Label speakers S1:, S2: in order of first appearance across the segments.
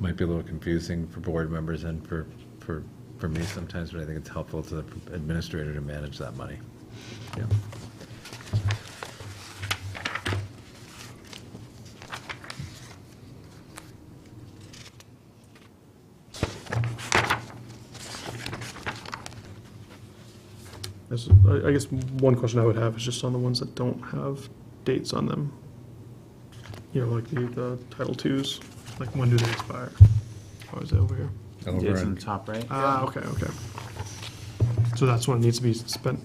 S1: might be a little confusing for board members and for, for, for me sometimes, but I think it's helpful to the administrator to manage that money. Yeah.
S2: This- I I guess one question I would have is just on the ones that don't have dates on them. You know, like the, the Title Twos, like when do they expire? Or is it over here?
S1: Over
S3: It's in the
S1: and,
S3: top right.
S2: Ah, okay, okay. So that's when it needs to be spent.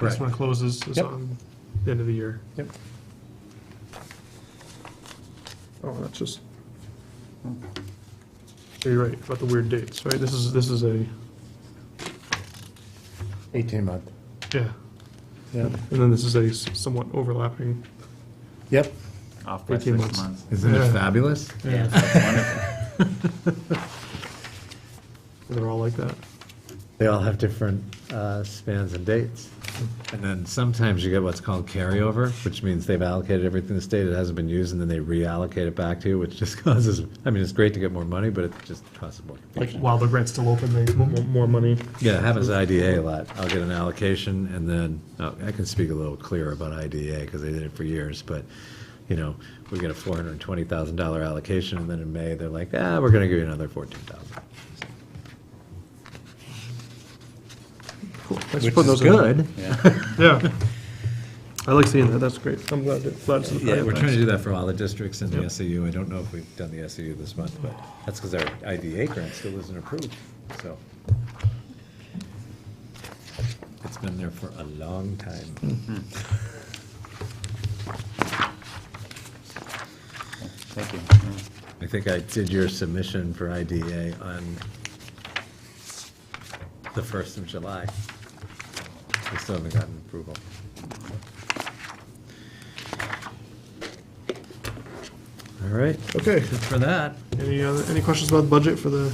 S2: That's when it closes, is
S4: Yep.
S2: on the end of the year.
S4: Yep.
S2: Oh, that's just. You're right, about the weird dates, right? This is, this is a,
S4: 18 month.
S2: yeah,
S4: Yep.
S2: and then this is a s- somewhat overlapping.
S4: Yep.
S3: Off by
S2: 18
S3: six
S2: months.
S3: months.
S1: isn't it
S2: Yeah.
S1: fabulous?
S3: Yeah, that's wonderful.
S2: They're all like that.
S1: They all have different uh, spans and dates. And then sometimes you get what's called carryover, which means they've allocated everything to the state, it hasn't been used, and then they reallocate it back to you, which just causes, I mean, it's great to get more money, but it just causes more
S2: Like
S1: confusion.
S2: while the rent's still open, they want more money.
S1: Yeah, it happens at IDA a lot. I'll get an allocation, and then, oh, I can speak a little clearer about IDA, because they did it for years, but, you know, we get a four hundred and twenty thousand dollar allocation, and then in May, they're like, ah, we're gonna give you another fourteen thousand.
S2: Cool. Thanks for
S1: Which
S2: putting
S1: is
S2: those in.
S1: good.
S2: Yeah. I like seeing that, that's great. I'm glad, that- glad. it's in the
S1: Yeah, we're
S2: pipeline.
S1: trying to do that for all the districts and the
S2: Yep.
S1: SAU. I don't know if we've done the SAU this month, but that's because our IDA grant still isn't approved, so. It's been there for a long time.
S3: Thank you.
S1: I think I did your submission for IDA on the first of July. We still haven't gotten approval. All right,
S2: Okay,
S1: good for that.
S2: any other, any questions about the budget for the,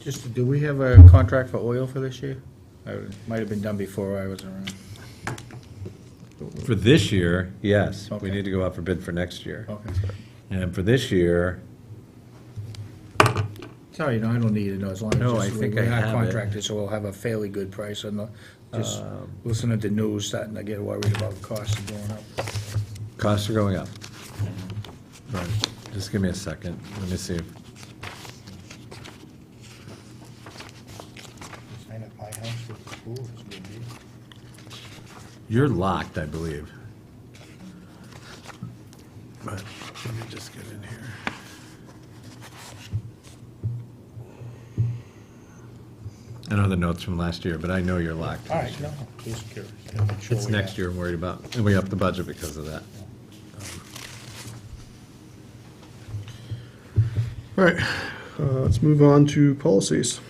S4: Just, do we have a contract for oil for this year? I Might have been done before I was around.
S1: For this year, yes, we
S4: Okay.
S1: need to go out for bid for next year.
S4: Okay.
S1: And for this year,
S4: Sorry, no, I don't need to know, as long as.
S1: No,
S4: just
S1: I
S4: we-
S1: think I
S4: We're
S1: have
S4: not
S1: it.
S4: contracted, so we'll have a fairly good price on the, just
S1: Um,
S4: listening to news, starting to get worried about the cost of going up.
S1: costs are going up. Right, just give me a second, let me see. You're locked, I believe. But let me just get in here. I know the notes from last year, but I know you're locked.
S4: All right, no, just curious.
S1: It's next year I'm worried about, and we upped the budget because of that.
S2: all right, uh, let's move on to policies.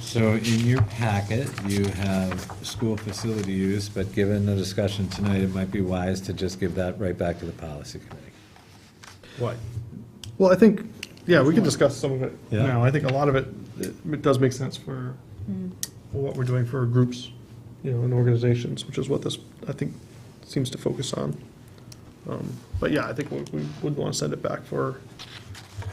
S1: So in your packet, you have school facility use, but given the discussion tonight, it might be wise to just give that right back to the policy committee.
S2: Why? Well, I think, yeah, we can discuss some of it
S1: Yeah.
S2: now. I think a lot of it, it it does make sense for for what we're doing for groups, you know, and organizations, which is what this, I think, seems to focus on. Um, But yeah, I think we we would want to send it back for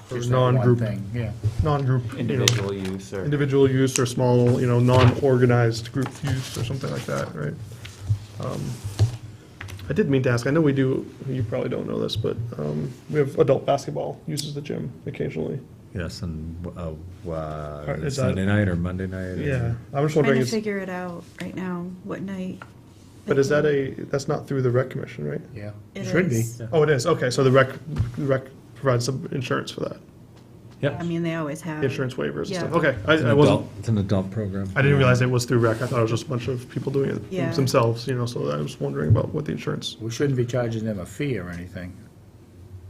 S2: for
S4: Just that one
S2: non-group,
S4: thing, Yeah.
S2: non-group, you know,
S3: Individual use or,
S2: individual use or small, you know, non-organized group use or something like that, right? Um, I did mean to ask, I know we do, you probably don't know this, but um, we have adult basketball uses the gym occasionally.
S1: Yes, and, uh,
S2: right,
S1: uh,
S2: is
S1: Sunday
S2: that-
S1: night or Monday night? or-
S2: Yeah, I was
S5: Trying
S2: wondering,
S5: to
S2: is-
S5: figure it out right now, what night.
S2: but is that a, that's not through the rec commission, right?
S4: Yeah.
S5: it
S4: Should be.
S5: is.
S2: Oh, it is, okay, so the rec, the rec provides some insurance for that,
S5: I
S1: Yep.
S5: mean, they always have.
S2: insurance waivers and stuff,
S5: Yeah.
S2: okay.
S1: It's
S2: I
S1: an
S2: I wasn't,
S1: adult- It's an adult program.
S2: I didn't realize it was through rec, I thought it was just a bunch of people doing
S5: Yeah.
S2: it themselves, you know, so I was wondering about what the insurance,
S4: We shouldn't be charging them a fee or anything,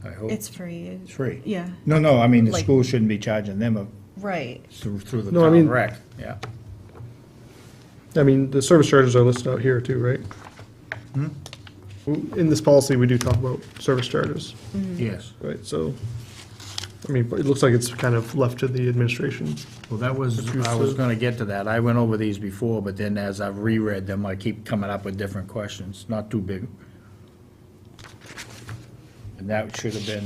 S4: I hope.
S5: It's free.
S4: It's free.
S5: Yeah,
S4: No, no, I mean, the
S5: Like-
S4: school shouldn't be charging them a,
S5: right.
S4: through, through the
S2: No, I
S4: town
S2: mean-
S4: rec, yeah.
S2: I mean, the service charges are listed out here too, right? In this policy, we do talk about service charges,
S4: Yes.
S2: right, so, I mean, it looks like it's kind of left to the administration.
S4: Well, that was,
S2: you
S4: I was
S2: said.
S4: gonna get to that. I went over these before, but then as I've reread them, I keep coming up with different questions, not too big. And that should have been